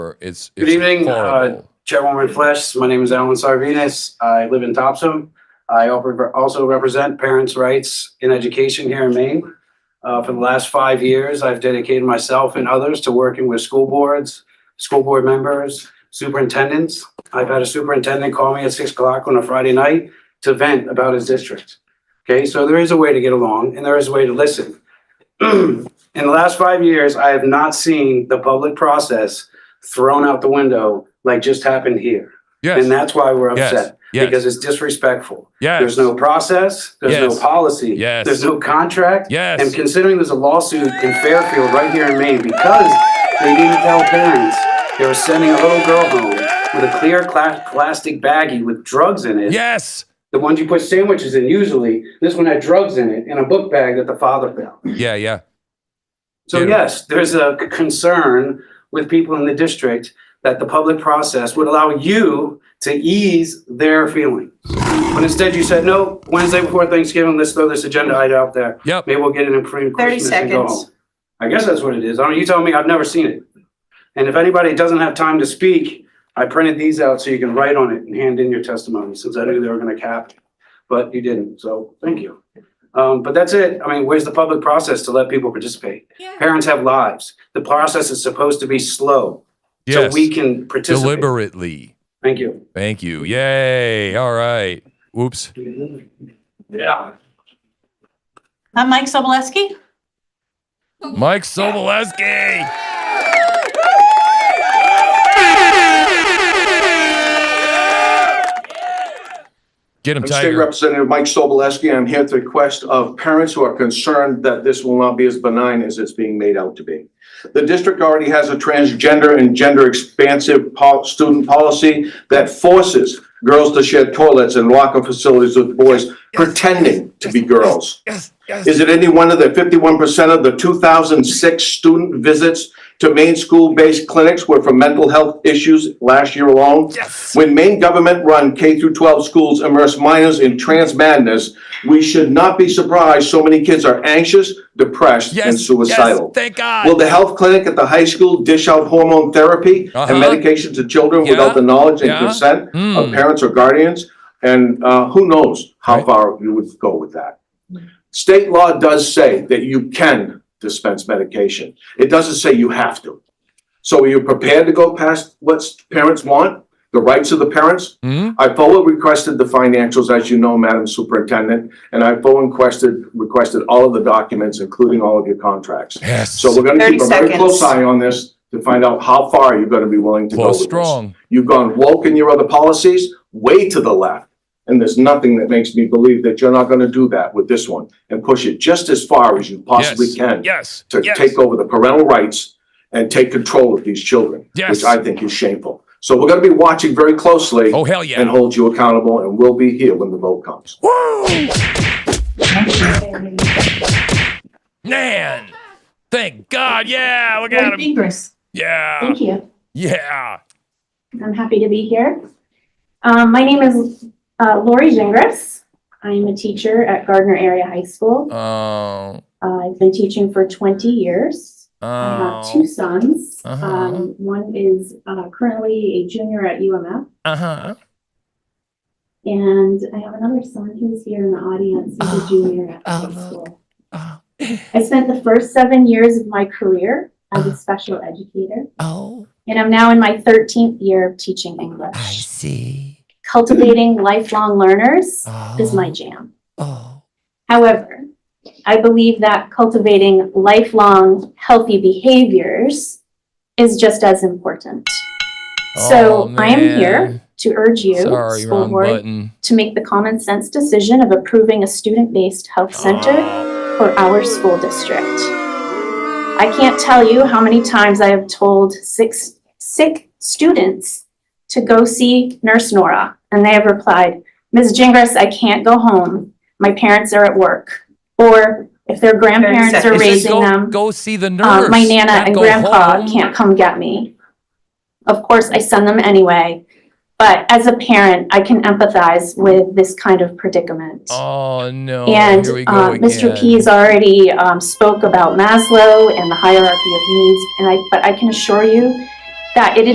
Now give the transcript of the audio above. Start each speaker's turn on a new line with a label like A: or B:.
A: or it's.
B: Good
A: it's
B: evening, uh,
A: horrible.
B: Chairwoman Flesh, my name is Alan Sarvenus. I live in Topsom. I op- also represent parents' rights in education here in Maine. Uh, For the last five years, I've dedicated myself and others to working with school boards, school board members, superintendents. I've had a superintendent call me at six o'clock on a Friday night to vent about his district. Okay, so there is a way to get along and there is a way to listen. In the last five years, I have not seen the public process thrown out the window like just happened here.
A: Yes,
B: And that's why we're
A: Yes.
B: upset
A: yes,
B: because it's disrespectful.
A: yes,
B: There's no process, there's
A: Yes.
B: no policy,
A: Yes.
B: there's no contract.
A: Yes.
B: And considering there's a lawsuit in Fairfield right here in Maine because they didn't tell parents they were sending a little girl home with a clear cla- plastic baggie with drugs in it.
A: yes,
B: The ones you put sandwiches in usually, this one had drugs in it and a book bag that the father found.
A: yeah, yeah.
B: So
A: Yeah.
B: yes, there's a c- concern with people in the district that the public process would allow you to ease their feelings. But instead you said, no, Wednesday before Thanksgiving, let's throw this agenda item out there.
A: Yep.
B: Maybe we'll get it in pre
C: 30
B: Christmas and go
C: seconds.
B: home. I guess that's what it is. I mean, you tell me, I've never seen it. And if anybody doesn't have time to speak, I printed these out so you can write on it and hand in your testimony, since I knew they were gonna cap. it. But you didn't, so thank you. Um, but that's it. I mean, where's the public process to let people participate? Parents have lives. The process is supposed to be slow, so
A: Yes.
B: we can participate.
A: Deliberately.
B: Thank you.
A: Thank you. Yay. All right. Whoops.
B: Yeah.
C: I'm Mike Soboleski.
A: Mike Soboleski. Get him,
D: I'm State
A: Tiger.
D: Representative Mike Soboleski. I'm here at the request of parents who are concerned that this will not be as benign as it's being made out to be. The district already has a transgender and gender expansive pol- student policy that forces girls to share toilets and locker facilities with boys pretending to be girls.
A: Yes, yes.
D: Is it any wonder that fifty-one percent of the two thousand six student visits to Maine school-based clinics were for mental health issues last year alone?
A: Yes.
D: When Maine government-run K through 12 schools immerse minors in trans madness, we should not be surprised so many kids are anxious, depressed,
A: Yes.
D: and
A: yes,
D: suicidal.
A: Thank God.
D: Will the health clinic at the high school dish out hormone therapy
A: Uh-huh.
D: and medication to children
A: Yeah.
D: without the knowledge and
A: Yeah.
D: consent
A: Mm.
D: of parents or guardians? And uh, who knows how
A: Right.
D: far you would go with that? State law does say that you can dispense medication. It doesn't say you have to. So are you prepared to go past what parents want, the rights of the parents?
A: Hmm?
D: I fully requested the financials, as you know, Madam Superintendent, and I fully requested, requested all of the documents, including all of your contracts.
A: Yes.
D: So we're gonna keep a
C: 30
D: very close
C: seconds.
D: eye on this to find out how far you're gonna be willing to go
A: Well,
D: with this.
A: strong.
D: You've gone woke in your other policies, way to the left, and there's nothing that makes me believe that you're not gonna do that with this one and push it just as far as you possibly
A: Yes.
D: can
A: Yes.
D: to
A: yes.
D: take over the parental rights and take control of these children,
A: Yes.
D: which I think is shameful. So we're gonna be watching very closely
A: Oh, hell yeah.
D: and hold you accountable, and we'll be here when the vote comes.
A: Woo! Man. Thank God. Yeah. Look at
E: Very
A: him.
E: Dangerous.
A: Yeah.
E: Thank you.
A: Yeah.
E: I'm happy to be here. Um, my name is uh, Lori Gingras. I'm a teacher at Gardner Area High School.
A: Oh.
E: Uh, I've been teaching for 20 years. I have two
A: Oh.
E: sons.
A: Uh-huh.
E: Um, one is uh, currently a junior at UMF,
A: Uh huh.
E: and I have another son who's here in the audience. He's
A: Oh,
E: a junior at
A: oh,
E: high school.
A: Oh.
E: I spent the first seven years of my career as a special educator,
A: Oh.
E: and I'm now in my 13th year of teaching English.
A: see.
E: cultivating lifelong learners
A: Oh.
E: is my jam.
A: Oh.
E: However, I believe that cultivating lifelong healthy behaviors is just as important. So I am here to urge you,
A: Oh, Sorry,
E: school
A: wrong
E: board,
A: button.
E: to make the common sense decision of approving a student-based health center for our school district. I can't tell you how many times I have told six sick students to go see Nurse Nora, and they have replied, Ms. Jingras, I can't go home. My parents are at work. Or if their grandparents are
C: seconds.
A: It says
E: raising
A: go,
E: them,
A: Go see the nurse.
E: uh, my nana
A: not
E: and
A: go
E: grandpa
A: home.
E: can't come get me. Of course, I send them anyway, but as a parent, I can empathize with this kind of predicament.
A: Oh no.
E: And
A: here we go
E: uh, Mr.
A: again.
E: Pease already um, spoke about Maslow and the hierarchy of needs, and I, but I can assure you that it is.